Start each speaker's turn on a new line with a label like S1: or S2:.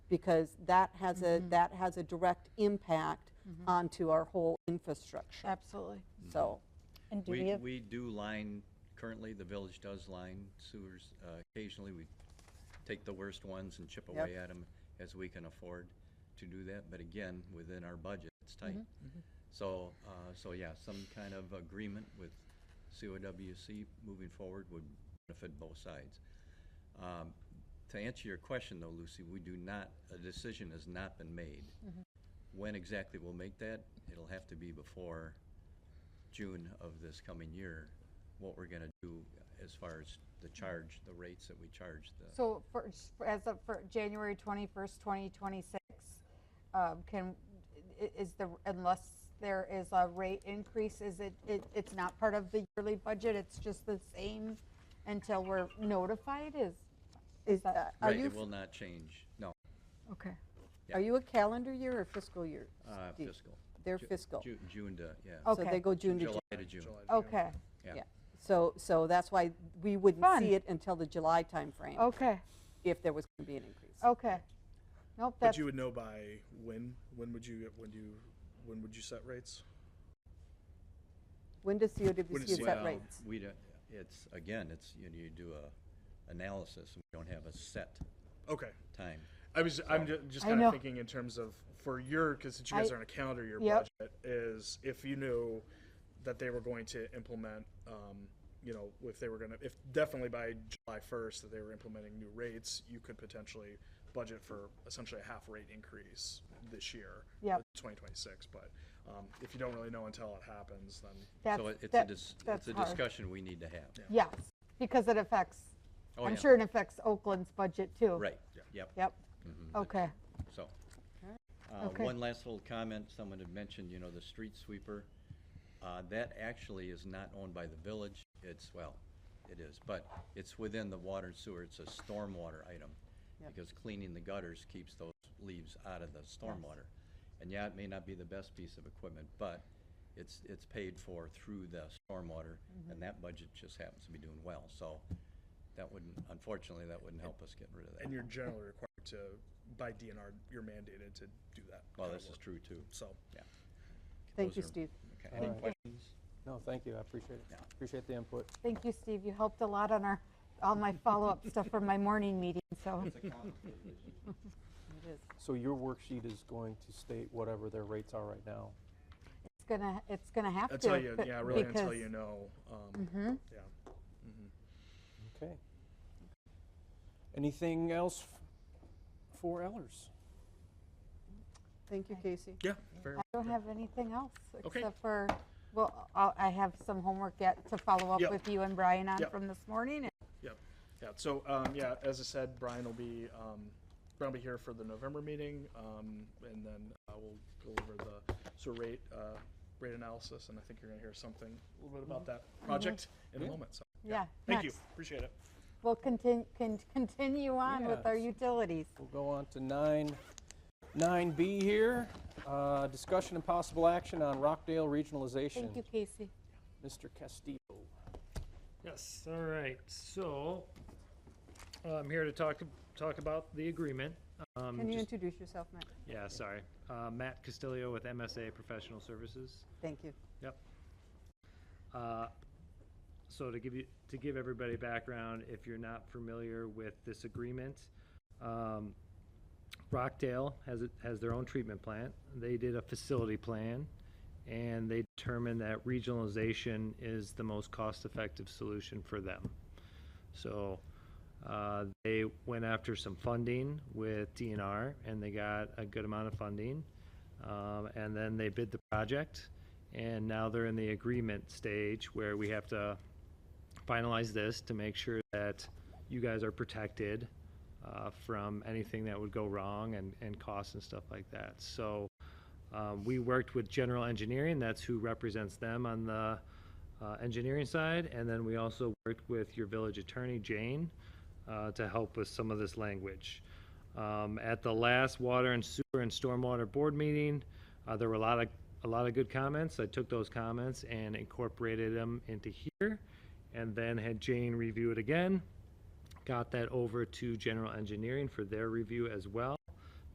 S1: because that has a, that has a direct impact onto our whole infrastructure.
S2: Absolutely.
S1: So,
S3: And do we
S4: We,
S3: have,
S4: we do line, currently, the village does line sewers. Uh, Occasionally, we take the worst ones and chip away at them as we can afford to do that. But again, within our budget, it's tight.
S3: Mm-hmm.
S4: So, uh, so yeah, some kind of agreement with COWC moving forward would benefit both sides. Um, To answer your question, though, Lucy, we do not, a decision has not been made. When exactly we'll make that, it'll have to be before June of this coming year, what we're going to do as far as the charge, the rates that we charge the.
S2: So for, as of, for January 21st, 2026, um, can, i- is the, unless there is a rate increase, is it, it, it's not part of the yearly budget, it's just the same until we're notified, is,
S1: is,
S2: that-
S1: uh, are
S4: Right,
S1: you,
S4: it will not change, no,
S2: okay.
S4: yeah.
S1: are you a calendar year or fiscal year?
S4: uh,
S1: Steve?
S4: fiscal.
S1: They're
S4: Ju-
S1: fiscal.
S4: Ju- June to, yeah,
S2: Oh,
S1: So
S2: Okay.
S1: they go June to June.
S4: July to June.
S2: Okay,
S1: Yeah.
S4: Yeah.
S1: So, so that's why we wouldn't
S2: Fun.
S1: see it until the July timeframe
S2: okay,
S1: if there was going to be an increase.
S2: okay. Nope,
S5: But
S2: that's,
S5: you would know by when? When would you? When do you? When would you set rates?
S1: When does
S5: When
S1: COWC
S5: is
S1: set
S4: Well,
S1: rates?
S4: We don't, it's, again, it's, you know, you do a analysis, we don't have a set
S5: Okay.
S4: time.
S5: I was. I'm just, just
S2: I
S5: kind
S2: know.
S5: of thinking in terms of for your because since you guys
S2: I-
S5: are on a calendar year
S2: Yep.
S5: budget is if you knew that they were going to implement. Um, you know, if they were going to, if definitely by July 1st that they were implementing new rates, you could potentially budget for essentially a half rate increase this year,
S2: Yep.
S5: 2026. But um, if you don't really know until it happens, then
S2: that's,
S4: So it- it's a,
S2: that-
S4: dis-
S2: that's
S4: it's a
S2: hard.
S4: discussion we need to have.
S2: Yes, because it affects,
S4: Oh,
S2: I'm
S4: yeah.
S2: sure it affects Oakland's budget too.
S4: Right, Mm-hmm. yep.
S2: Yep, okay,
S4: So, uh,
S2: Okay.
S4: one last little comment, someone had mentioned, you know, the street sweeper. Uh, That actually is not owned by the village, it's, well, it is, but it's within the water and sewer, it's a stormwater item. Because cleaning the gutters keeps those leaves out of the stormwater. And yeah, it may not be the best piece of equipment, but it's, it's paid for through the stormwater, and that budget just happens to be doing well, so that wouldn't, unfortunately, that wouldn't help us get rid of that.
S5: And you're generally required to, by DNR, you're mandated to do that.
S4: Well,
S5: kinda
S4: this
S5: work.
S4: is true too,
S5: So,
S4: yeah.
S1: Thank
S4: Those
S1: you,
S4: are-
S1: Steve.
S4: Okay, any questions?
S6: No, thank you, I appreciate it.
S4: Yeah.
S6: Appreciate the input.
S2: thank you, Steve, you helped a lot on our, all my follow-up stuff from my morning meeting, so.
S1: It is.
S6: So your worksheet is going to state whatever their rates are right now?
S2: It's gonna, it's gonna have to.
S5: until you,
S2: b-
S5: yeah, really until
S2: because- Mm-hmm.
S5: you know. um, Yeah.
S6: Okay. Anything else f- for Ellers?
S1: Mm-hmm. Thank you, Casey.
S5: Yeah, fair.
S2: I don't have anything else,
S5: Okay.
S2: except for, well, I'll- I have some homework yet to follow up
S5: Yep.
S2: with you and Brian on
S5: Yep.
S2: from this morning. and-
S5: Yep. Yeah. So, um, yeah, as I said, Brian will be, um, Brian will be here for the November meeting, um, and then uh, we'll go over the sort of rate, uh, rate analysis, and I think you're gonna hear something a little bit about that project in a moment. So,
S2: Mm-hmm. Yeah,
S5: thank you.
S2: next.
S5: Appreciate it.
S2: We'll continue, continue on with our utilities.
S6: We'll go on to nine, nine B here. Uh, Discussion and possible action on Rockdale regionalization.
S2: Thank you, Casey.
S6: Mr. Castillo.
S7: Yes, all right, so, uh, I'm here to talk, talk about the agreement. Um,
S1: Can you
S7: just-
S1: introduce yourself, Matt?
S7: Yeah, sorry. Uh, Matt Castillo with MSA Professional Services.
S1: Thank you.
S7: Yep. Uh, So to give you, to give everybody background, if you're not familiar with this agreement, um, Rockdale has, it- has their own treatment plant. They did a facility plan, and they determined that regionalization is the most cost-effective solution for them. So uh, they went after some funding with DNR, and they got a good amount of funding. Um, And then they bid the project, and now they're in the agreement stage where we have to finalize this to make sure that you guys are protected uh, from anything that would go wrong and, and costs and stuff like that. So um, we worked with General Engineering, that's who represents them on the uh, engineering side. And then we also worked with your village attorney, Jane, uh, to help with some of this language. Um, At the last Water and Sewer and Stormwater Board meeting, uh, there were a lot of, a lot of good comments. I took those comments and incorporated them into here, and then had Jane review it again. Got that over to General Engineering for their review as well.